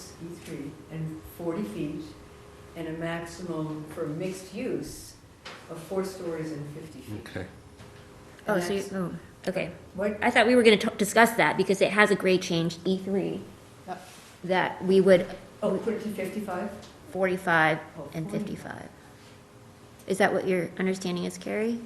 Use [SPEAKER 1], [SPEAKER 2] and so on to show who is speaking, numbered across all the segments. [SPEAKER 1] sixty-three E and forty feet, and a maximum for mixed use of four stories and fifty
[SPEAKER 2] Mm.
[SPEAKER 1] feet.
[SPEAKER 3] Okay.
[SPEAKER 4] Oh,
[SPEAKER 1] And
[SPEAKER 4] so you,
[SPEAKER 1] that's-
[SPEAKER 4] oh, okay.
[SPEAKER 1] What,
[SPEAKER 4] I thought we were gonna t- discuss that because it has a grade change, E three.
[SPEAKER 1] Yep.
[SPEAKER 4] That we would
[SPEAKER 1] oh, put it to fifty-five? Oh,
[SPEAKER 4] forty-five Mm. and fifty-five. Is that what your understanding is, Carrie?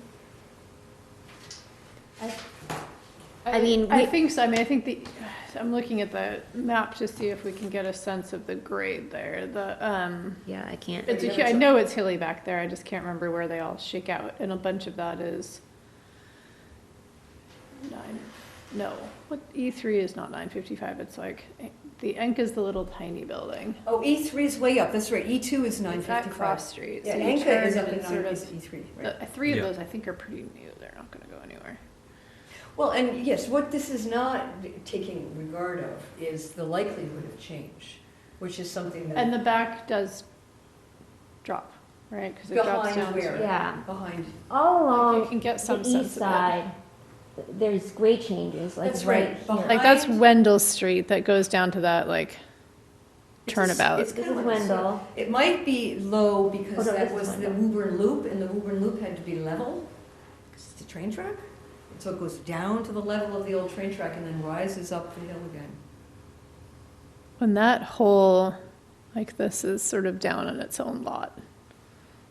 [SPEAKER 4] I mean,
[SPEAKER 2] I
[SPEAKER 4] we-
[SPEAKER 2] think so, I mean, I think the, I'm looking at the map to see if we can get a sense of the grade there, the, um,
[SPEAKER 4] Yeah, I can't.
[SPEAKER 2] it's a, hu- I know it's hilly back there, I just can't remember where they all shake out, and a bunch of that is nine, no, what, E three is not nine fifty-five, it's like, the Enk is the little tiny building.
[SPEAKER 1] Oh, E three is way up, that's right, E two is nine
[SPEAKER 2] It's that
[SPEAKER 1] fifty-five.
[SPEAKER 2] cross street,
[SPEAKER 1] Yeah,
[SPEAKER 2] so you
[SPEAKER 1] Anka is
[SPEAKER 2] turn
[SPEAKER 1] up
[SPEAKER 2] and
[SPEAKER 1] at
[SPEAKER 2] it's sort
[SPEAKER 1] nine
[SPEAKER 2] of,
[SPEAKER 1] fifty-three, right.
[SPEAKER 2] the- three of
[SPEAKER 3] Yeah.
[SPEAKER 2] those I think are pretty new, they're not gonna go anywhere.
[SPEAKER 1] Well, and yes, what this is not taking regard of is the likelihood of change, which is something
[SPEAKER 2] And
[SPEAKER 1] that,
[SPEAKER 2] the back does drop, right? Because it drops
[SPEAKER 1] behind
[SPEAKER 2] down.
[SPEAKER 1] where?
[SPEAKER 2] to-
[SPEAKER 4] Yeah,
[SPEAKER 1] Behind,
[SPEAKER 4] all
[SPEAKER 2] Like, You
[SPEAKER 4] along
[SPEAKER 2] can get
[SPEAKER 4] the
[SPEAKER 2] some sense
[SPEAKER 4] east
[SPEAKER 2] of it.
[SPEAKER 4] side, th- there's grade changes, like
[SPEAKER 1] That's right,
[SPEAKER 4] right
[SPEAKER 1] behind-
[SPEAKER 4] here.
[SPEAKER 2] Like, that's Wendell Street that goes down to that, like,
[SPEAKER 1] It's a s-
[SPEAKER 2] turnabout.
[SPEAKER 1] it's
[SPEAKER 4] This
[SPEAKER 1] kind
[SPEAKER 4] is
[SPEAKER 1] of like a circle.
[SPEAKER 4] Wendell.
[SPEAKER 1] It might be low
[SPEAKER 4] Oh,
[SPEAKER 1] because
[SPEAKER 4] no,
[SPEAKER 1] that
[SPEAKER 4] this
[SPEAKER 1] was
[SPEAKER 4] is
[SPEAKER 1] the
[SPEAKER 4] Wendell.
[SPEAKER 1] Woburn Loop, and the Woburn Loop had to be level, because it's a train track. And So it goes down to the level of the old train track and then rises up the hill again.
[SPEAKER 2] when that whole, like, this is sort of down on its own lot.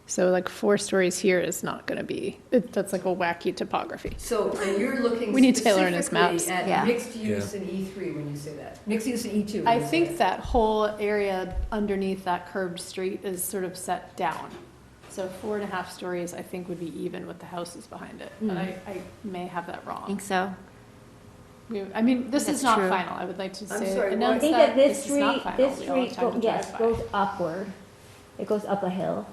[SPEAKER 2] So, like, four stories here is not going to be, it, that's like a wacky topography.
[SPEAKER 1] So, and you're looking
[SPEAKER 2] We need Taylor and his
[SPEAKER 1] specifically
[SPEAKER 2] maps.
[SPEAKER 4] Yeah.
[SPEAKER 1] at mixed use and E three when you say that, mixed use and E two.
[SPEAKER 2] I think that whole area underneath that curved street is sort of set down. So four and a half stories, I think, would be even with the houses behind it. But I, I may have that
[SPEAKER 4] I
[SPEAKER 2] wrong.
[SPEAKER 4] think so.
[SPEAKER 2] We- I mean, this
[SPEAKER 4] That's
[SPEAKER 2] is not
[SPEAKER 4] true.
[SPEAKER 2] final. I would like to
[SPEAKER 1] I'm sorry,
[SPEAKER 2] say,
[SPEAKER 1] what-
[SPEAKER 4] I
[SPEAKER 2] announce
[SPEAKER 4] think that
[SPEAKER 2] that
[SPEAKER 4] this
[SPEAKER 2] this is
[SPEAKER 4] street,
[SPEAKER 2] not final.
[SPEAKER 4] this
[SPEAKER 2] We all have
[SPEAKER 4] street,
[SPEAKER 2] time
[SPEAKER 4] go-
[SPEAKER 2] to
[SPEAKER 4] yes,
[SPEAKER 2] drive by.
[SPEAKER 4] goes upward. It goes up a hill.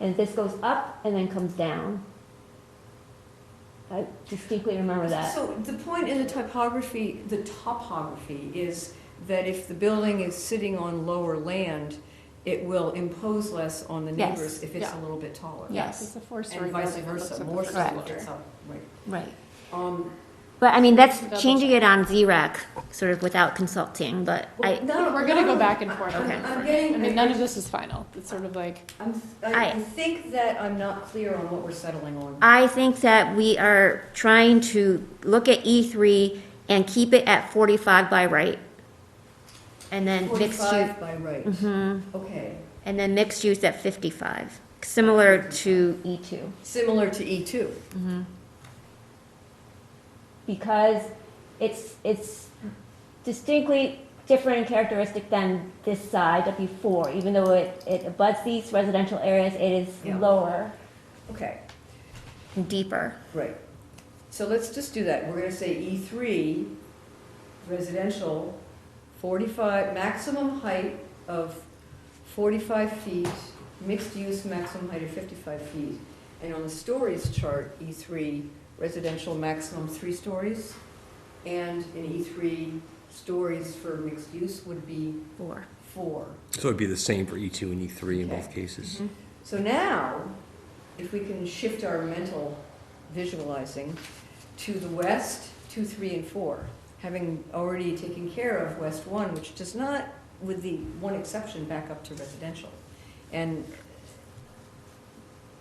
[SPEAKER 4] And this goes up and then comes down. I distinctly remember that.
[SPEAKER 1] So the point in the typography, the topography, is that if the building is sitting on lower land, it will impose less on the
[SPEAKER 4] Yes.
[SPEAKER 1] neighbors if it's a
[SPEAKER 2] Yeah.
[SPEAKER 1] little bit taller.
[SPEAKER 2] Yes,
[SPEAKER 4] Yes.
[SPEAKER 2] it's a four-story
[SPEAKER 1] And vice
[SPEAKER 2] building that looks
[SPEAKER 1] versa,
[SPEAKER 2] at the
[SPEAKER 1] more so
[SPEAKER 2] first
[SPEAKER 1] if
[SPEAKER 2] floor.
[SPEAKER 1] it's up, right.
[SPEAKER 4] Right.
[SPEAKER 1] Um,
[SPEAKER 4] But I mean,
[SPEAKER 2] Double
[SPEAKER 4] that's changing it on ZRAC, sort of without consulting, but I,
[SPEAKER 1] no,
[SPEAKER 2] We're gonna go
[SPEAKER 1] no,
[SPEAKER 2] back and forth.
[SPEAKER 1] I'm-
[SPEAKER 4] Okay.
[SPEAKER 1] I'm
[SPEAKER 2] I mean,
[SPEAKER 1] getting,
[SPEAKER 2] none
[SPEAKER 1] I-
[SPEAKER 2] of this is final. It's sort of like,
[SPEAKER 1] I'm,
[SPEAKER 4] I-
[SPEAKER 1] I I think that I'm not clear on what we're settling on.
[SPEAKER 4] I think that we are trying to look at E3 and keep it at 45 by right. And then mixed use, mm-hmm,
[SPEAKER 1] Forty-five by right, okay,
[SPEAKER 4] and then mixed use at 55, similar to E E2.
[SPEAKER 1] similar to E two.
[SPEAKER 4] Mm-hmm. because it's it's distinctly different in characteristic than this side of before. Even though it, it abuts these residential areas, it is
[SPEAKER 1] Yeah.
[SPEAKER 4] lower
[SPEAKER 1] Okay,
[SPEAKER 4] and deeper.
[SPEAKER 1] right. So let's just do that, we're gonna say E three, residential, forty-five, maximum height of forty-five feet, mixed use maximum height of fifty-five feet. And on the stories chart, E three, residential maximum three stories. And in E three, stories for mixed use would be
[SPEAKER 4] Four.
[SPEAKER 1] four.
[SPEAKER 3] So it'd be the same for E2 and E3 in
[SPEAKER 1] Okay.
[SPEAKER 3] both cases.
[SPEAKER 1] So now, if we can shift our mental visualizing to the west, two, three, and four, having already taken care of west one, which does not, with the one exception, back up to residential. And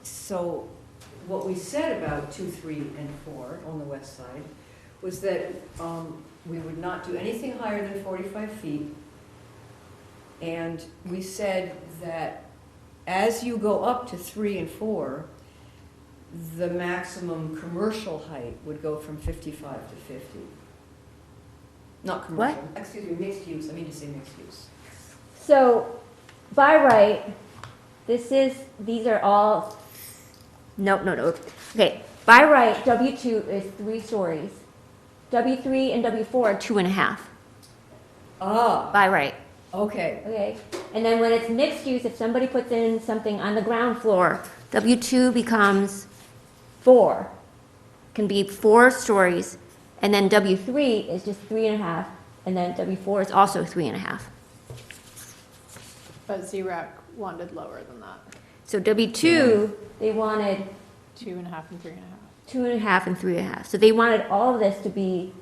[SPEAKER 1] so what we said about two, three, and four on the west side was that um, we would not do anything higher than 45 feet. And we said that as you go up to three and four, the maximum commercial height would go from 55 to 50. Not commercial. Excuse me, mixed use, I mean to say mixed use.
[SPEAKER 4] So by right, this is these are all no no no. Okay. By right, W two is three stories. W three and W four are Uh, two and a half.
[SPEAKER 1] Ah,
[SPEAKER 4] By right.
[SPEAKER 1] okay,
[SPEAKER 4] Okay, and then when it's mixed use, if somebody puts in something on the ground floor, W two becomes four, can be four stories, and then W three is just three and a half, and then W four is also three and a half.
[SPEAKER 2] but Z-RAC wanted lower than that,
[SPEAKER 4] So W two, they wanted
[SPEAKER 2] two and a half and three and a half.
[SPEAKER 4] two and a half and three and a half, so they wanted all of this to be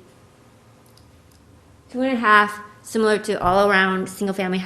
[SPEAKER 4] two and a half, similar to all around single family